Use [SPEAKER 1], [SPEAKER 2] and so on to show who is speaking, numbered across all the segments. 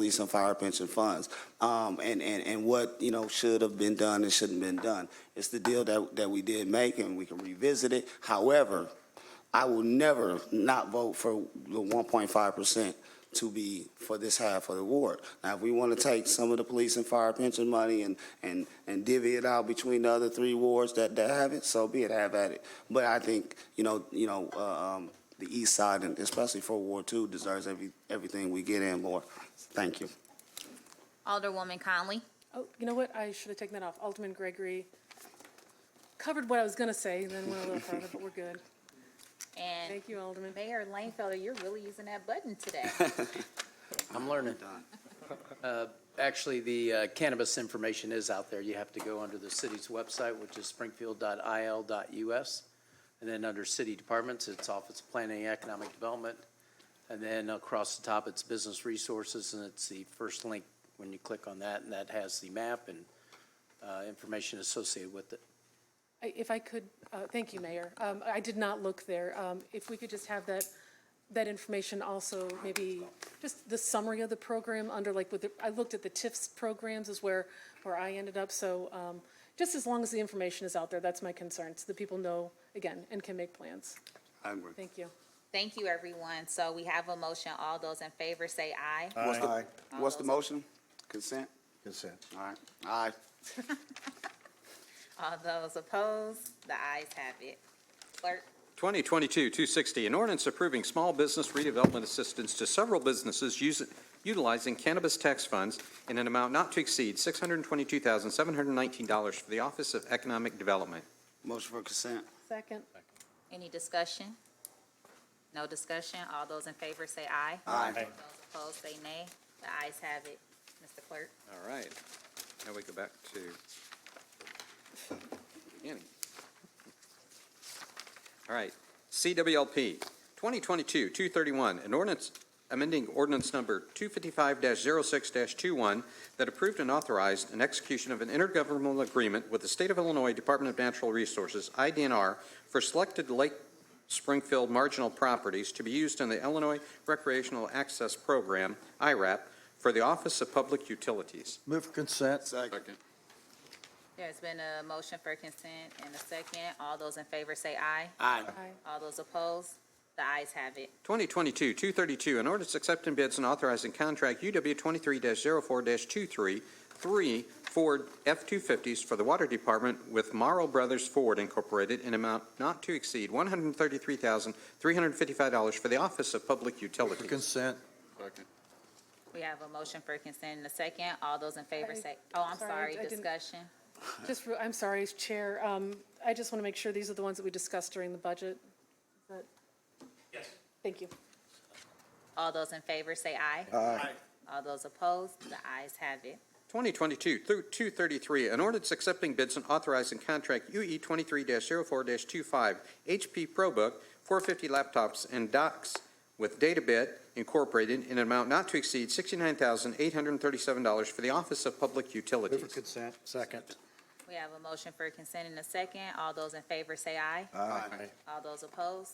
[SPEAKER 1] be some fire pension funds. Um, and, and, and what, you know, should have been done and shouldn't been done. It's the deal that, that we did make and we can revisit it. However, I will never not vote for the one point five percent to be for this half of the ward. Now, if we want to take some of the police and fire pension money and, and, and divvy it out between the other three wards that, that have it, so be it, have at it. But I think, you know, you know, uh, um, the east side, and especially for Ward Two, deserves every, everything we get and more. Thank you.
[SPEAKER 2] Alderwoman Conley.
[SPEAKER 3] Oh, you know what? I should have taken that off. Alderman Gregory covered what I was going to say, and then went a little further, but we're good.
[SPEAKER 2] And
[SPEAKER 3] Thank you, Alderman.
[SPEAKER 2] Mayor Langfelder, you're really using that button today.
[SPEAKER 4] I'm learning. Uh, Actually, the uh, cannabis information is out there. You have to go under the city's website, which is springfield.il.us. And then under city departments, it's Office of Planning and Economic Development. And then across the top, it's Business Resources, and it's the first link when you click on that, and that has the map and uh, information associated with it.
[SPEAKER 3] I- If I could, uh, thank you, Mayor. Um, I did not look there. Um, If we could just have that, that information also, maybe just the summary of the program under like with, the- I looked at the TIFs programs is where, where I ended up. So um, just as long as the information is out there, that's my concern, so the people know, again, and can make plans.
[SPEAKER 1] I agree.
[SPEAKER 3] Thank you.
[SPEAKER 2] Thank you, everyone. So we have a motion. All those in favor say aye.
[SPEAKER 1] What's the, what's the motion? Consent?
[SPEAKER 5] Consent.
[SPEAKER 1] All right. All right.
[SPEAKER 2] All those opposed, the ayes have it. Clerk,
[SPEAKER 6] 2022-260, an ordinance approving small business redevelopment assistance to several businesses using- utilizing cannabis tax funds in an amount not to exceed $622,719 for the Office of Economic Development.
[SPEAKER 1] Motion for consent.
[SPEAKER 3] Second.
[SPEAKER 2] any discussion? No discussion? All those in favor say aye.
[SPEAKER 1] Aye.
[SPEAKER 2] Those opposed say nay. The ayes have it. Mr. Clerk,
[SPEAKER 6] All right. Now we go back to beginning. All right. CWLP 2022-231, an ordinance amending ordinance number 255-06-21 that approved and authorized an execution of an intergovernmental agreement with the State of Illinois Department of Natural Resources, IDNR, for selected Lake Springfield marginal properties to be used in the Illinois Recreational Access Program, IRAP, for the Office of Public Utilities.
[SPEAKER 5] Move for consent.
[SPEAKER 1] Second.
[SPEAKER 2] there's been a motion for consent and a second. All those in favor say aye.
[SPEAKER 1] Aye.
[SPEAKER 3] Aye.
[SPEAKER 2] All those opposed, the ayes have it.
[SPEAKER 6] 2022-232, an ordinance accepting bids and authorizing contract UW 23-04-233, three Ford F-250s for the Water Department with Morrow Brothers Ford Incorporated in amount not to exceed $133,355 for the Office of Public
[SPEAKER 5] For
[SPEAKER 6] Utilities.
[SPEAKER 5] consent.
[SPEAKER 2] We have a motion for consent and a second. All those in favor
[SPEAKER 3] I-
[SPEAKER 2] say, oh, I'm
[SPEAKER 3] sorry,
[SPEAKER 2] sorry,
[SPEAKER 3] I didn't-
[SPEAKER 2] discussion.
[SPEAKER 3] Just, re- I'm sorry, Chair, um, I just want to make sure these are the ones that we discussed during the budget. Yes. Thank you.
[SPEAKER 2] All those in favor say aye.
[SPEAKER 5] Aye.
[SPEAKER 2] All those opposed, the ayes have it.
[SPEAKER 6] 2022 through 233, an ordinance accepting bids and authorizing contract E UE 23-04-25 HP ProBook 450 laptops and docks with DataBit Incorporated in an amount not to exceed $69,837 for the Office of Public
[SPEAKER 5] Move for
[SPEAKER 6] Utilities.
[SPEAKER 5] consent. Second.
[SPEAKER 2] We have a motion for consent and a second. All those in favor say aye.
[SPEAKER 5] Aye.
[SPEAKER 2] All those opposed,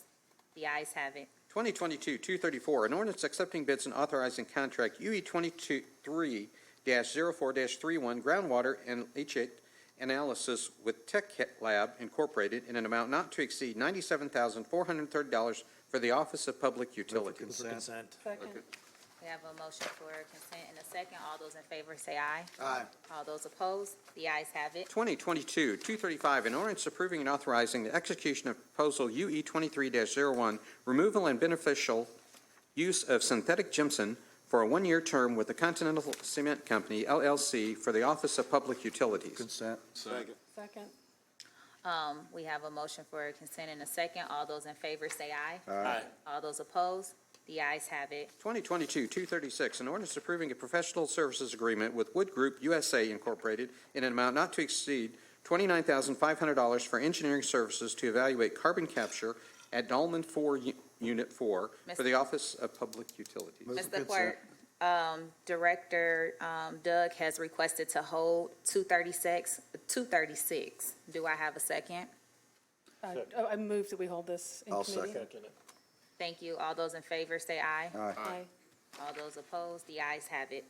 [SPEAKER 2] the ayes have it.
[SPEAKER 6] 2022-234, an ordinance accepting bids and authorizing contract E UE 23-04-31 groundwater and leachate analysis with Tech Lab Incorporated in an amount not to exceed $97,430 for the Office of Public
[SPEAKER 5] Move for
[SPEAKER 6] Utilities.
[SPEAKER 5] consent.
[SPEAKER 3] Second.
[SPEAKER 2] We have a motion for consent and a second. All those in favor say aye.
[SPEAKER 1] Aye.
[SPEAKER 2] All those opposed, the ayes have it.
[SPEAKER 6] 2022-235, an ordinance approving and authorizing the execution of proposal E UE 23-01, removal and beneficial use of synthetic gypsum for a one-year term with the Continental Cement Company LLC for the Office of Public Utilities.
[SPEAKER 5] Consent.
[SPEAKER 1] Second.
[SPEAKER 3] Second.
[SPEAKER 2] Um, we have a motion for consent and a second. All those in favor say aye.
[SPEAKER 5] Aye.
[SPEAKER 2] All those opposed, the ayes have it.
[SPEAKER 6] 2022-236, an ordinance approving a professional services agreement with Wood Group USA Incorporated in an amount not to exceed $29,500 for engineering services to evaluate carbon capture at Dolman 4 U- Unit 4 for the Office of Public Utilities.
[SPEAKER 5] Move for
[SPEAKER 2] Mr.
[SPEAKER 5] consent.
[SPEAKER 2] Clerk, um, Director, um, Doug has requested to hold two thirty-six, two thirty-six. Do I have a second?
[SPEAKER 3] Uh, oh, I move that we hold this in
[SPEAKER 5] I'll
[SPEAKER 3] committee.
[SPEAKER 5] second.
[SPEAKER 2] Thank you. All those in favor say aye.
[SPEAKER 5] Aye.
[SPEAKER 3] Aye.
[SPEAKER 2] All those opposed, the ayes have it.